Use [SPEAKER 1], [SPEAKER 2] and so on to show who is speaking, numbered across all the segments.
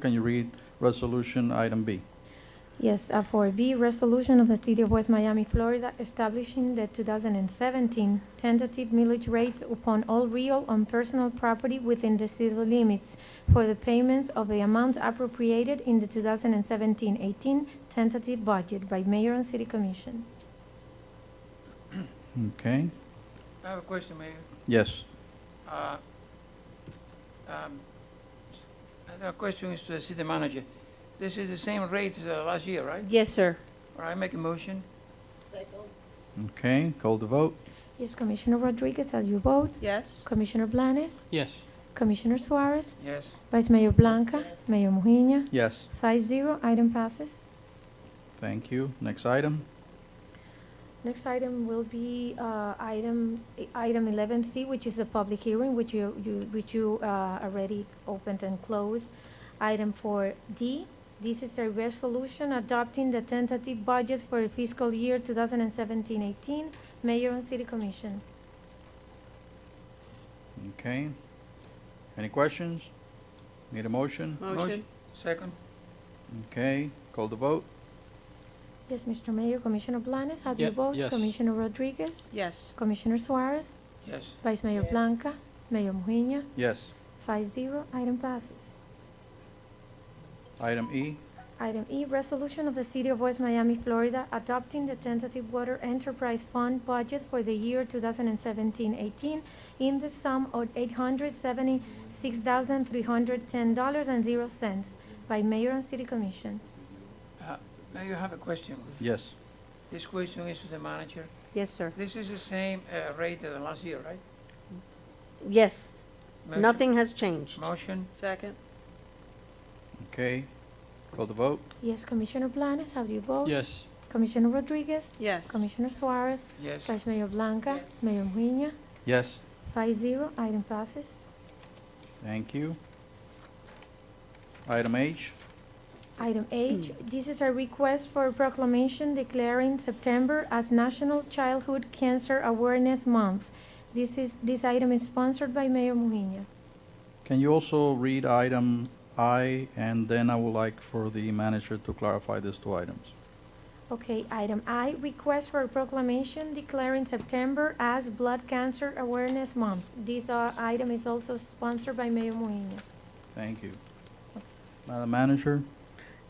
[SPEAKER 1] Can you read resolution item B?
[SPEAKER 2] Yes, uh, for B, resolution of the City of West Miami, Florida, establishing the 2017 tentative millage rate upon all real and personal property within the city limits for the payments of the amount appropriated in the 2017-18 tentative budget by mayor and city commission.
[SPEAKER 1] Okay,
[SPEAKER 3] I have a question, Mayor.
[SPEAKER 1] yes.
[SPEAKER 3] Uh, um, The question is to the city manager. This is the same rate as uh, last year, right?
[SPEAKER 4] Yes, sir.
[SPEAKER 3] All right, make a motion.
[SPEAKER 1] Okay, call the vote?
[SPEAKER 2] Yes, Commissioner Rodriguez, as you vote.
[SPEAKER 4] Yes.
[SPEAKER 2] Commissioner Blanes.
[SPEAKER 5] Yes.
[SPEAKER 2] Commissioner Suarez.
[SPEAKER 3] Yes.
[SPEAKER 2] Vice Mayor Blanca. Mayor Mujina.
[SPEAKER 1] Yes,
[SPEAKER 2] Five zero, item passes.
[SPEAKER 1] thank you. Next item?
[SPEAKER 2] Next item will be uh, item, item 11C, which is the public hearing, which you, you- which you uh, already opened and closed. Item 4D, this is a resolution adopting the tentative budget for fiscal year 2017-18, Mayor and City Commission.
[SPEAKER 1] Okay. Any questions? Need a motion?
[SPEAKER 4] Motion.
[SPEAKER 3] Second?
[SPEAKER 1] Okay, call the vote?
[SPEAKER 2] Yes, Mr. Mayor, Commissioner Blanes, how do you
[SPEAKER 5] Ye-
[SPEAKER 2] vote?
[SPEAKER 5] yes.
[SPEAKER 2] Commissioner Rodriguez,
[SPEAKER 4] Yes.
[SPEAKER 2] Commissioner Suarez,
[SPEAKER 3] Yes.
[SPEAKER 2] Vice Mayor Blanca, Mayor Mujina,
[SPEAKER 1] Yes.
[SPEAKER 2] five zero, item passes.
[SPEAKER 1] Item E?
[SPEAKER 2] Item E, resolution of the City of West Miami, Florida, adopting the tentative water enterprise fund budget for the year 2017-18 in the sum of $876,310.00 by Mayor and City Commission.
[SPEAKER 3] Uh, Mayor, I have a question.
[SPEAKER 1] Yes.
[SPEAKER 3] This question is to the manager.
[SPEAKER 4] Yes, sir.
[SPEAKER 3] This is the same uh, rate as last year, right?
[SPEAKER 4] Yes.
[SPEAKER 3] Motion-
[SPEAKER 4] Nothing has changed.
[SPEAKER 3] Motion?
[SPEAKER 4] Second.
[SPEAKER 1] Okay, call the vote?
[SPEAKER 2] Yes, Commissioner Blanes, how do you vote?
[SPEAKER 5] Yes.
[SPEAKER 2] Commissioner Rodriguez?
[SPEAKER 4] Yes.
[SPEAKER 2] Commissioner Suarez?
[SPEAKER 3] Yes.
[SPEAKER 2] Vice Mayor Blanca? Mayor Mujina?
[SPEAKER 1] Yes,
[SPEAKER 2] Five zero, item passes.
[SPEAKER 1] thank you. Item H?
[SPEAKER 2] Item H, this is a request for a proclamation declaring September as National Childhood Cancer Awareness Month. This is, this item is sponsored by Mayor Mujina.
[SPEAKER 1] Can you also read item I, and then I would like for the manager to clarify these two items?
[SPEAKER 2] Okay, item I, request for a proclamation declaring September as Blood Cancer Awareness Month. This uh, item is also sponsored by Mayor Mujina.
[SPEAKER 1] Thank you. Madam Manager?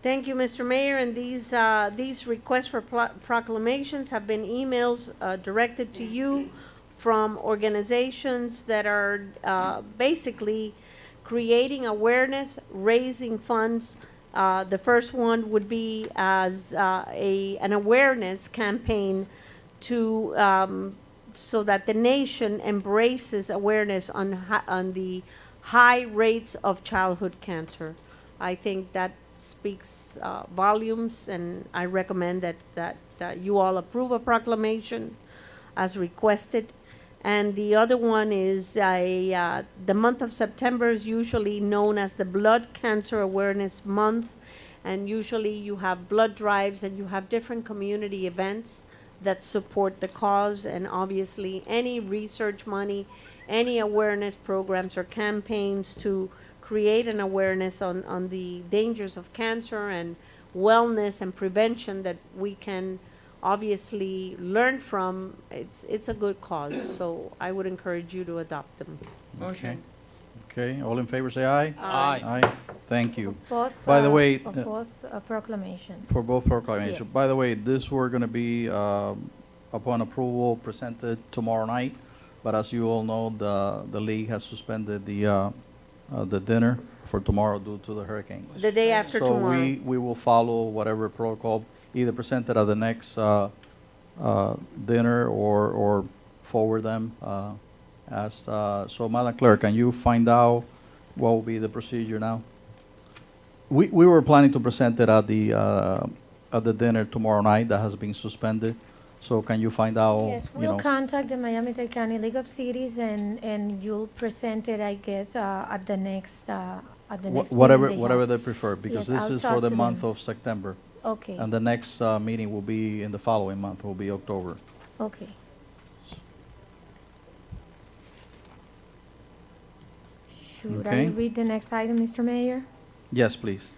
[SPEAKER 4] Thank you, Mr. Mayor, and these, uh, these requests for pla- proclamations have been emails, uh, directed to you from organizations that are, uh, basically creating awareness, raising funds. Uh, the first one would be as, uh, a, an awareness campaign to, um, so that the nation embraces awareness on hi- on the high rates of childhood cancer. I think that speaks uh, volumes, and I recommend that, that, that you all approve a proclamation as requested. And the other one is a, uh, the month of September is usually known as the Blood Cancer Awareness Month, and usually you have blood drives and you have different community events that support the cause, and obviously any research money, any awareness programs or campaigns to create an awareness on, on the dangers of cancer and wellness and prevention that we can obviously learn from. It's, it's a good cause, so I would encourage you to adopt them.
[SPEAKER 3] Motion?
[SPEAKER 1] Okay, all in favor, say aye.
[SPEAKER 5] Aye.
[SPEAKER 1] Aye. Thank you
[SPEAKER 2] Both,
[SPEAKER 1] By the
[SPEAKER 2] uh,
[SPEAKER 1] way,
[SPEAKER 2] of
[SPEAKER 1] uh,
[SPEAKER 2] Both uh, proclamations.
[SPEAKER 1] for both proclamations.
[SPEAKER 2] Yes.
[SPEAKER 1] By the way, this were gonna be, um, upon approval, presented tomorrow night, but as you all know, the, the league has suspended the, uh, uh, the dinner for tomorrow due to the hurricane.
[SPEAKER 4] The day after tomorrow.
[SPEAKER 1] So we, we will follow whatever protocol, either presented at the next uh, uh, dinner or, or forward them uh, as, uh, so Madam Clerk, can you find out what will be the procedure now? We, we were planning to present it at the, uh, at the dinner tomorrow night that has been suspended. So can you find out,
[SPEAKER 2] Yes,
[SPEAKER 1] Oh, you
[SPEAKER 2] we'll
[SPEAKER 1] know?
[SPEAKER 2] contact the Miami-Dade County League of Cities and, and you'll present it, I guess, uh, at the next, uh, at the
[SPEAKER 1] wha-
[SPEAKER 2] next. meeting
[SPEAKER 1] Whatever,
[SPEAKER 2] they have.
[SPEAKER 1] whatever they prefer, because
[SPEAKER 2] Yes,
[SPEAKER 1] this
[SPEAKER 2] I'll
[SPEAKER 1] is
[SPEAKER 2] talk
[SPEAKER 1] for the
[SPEAKER 2] to
[SPEAKER 1] month
[SPEAKER 2] them.
[SPEAKER 1] of September.
[SPEAKER 2] Okay,
[SPEAKER 1] And the next uh, meeting will be in the following month, will be October.
[SPEAKER 2] okay. Should I
[SPEAKER 1] Okay.
[SPEAKER 2] read the next item, Mr. Mayor?
[SPEAKER 1] Yes, please.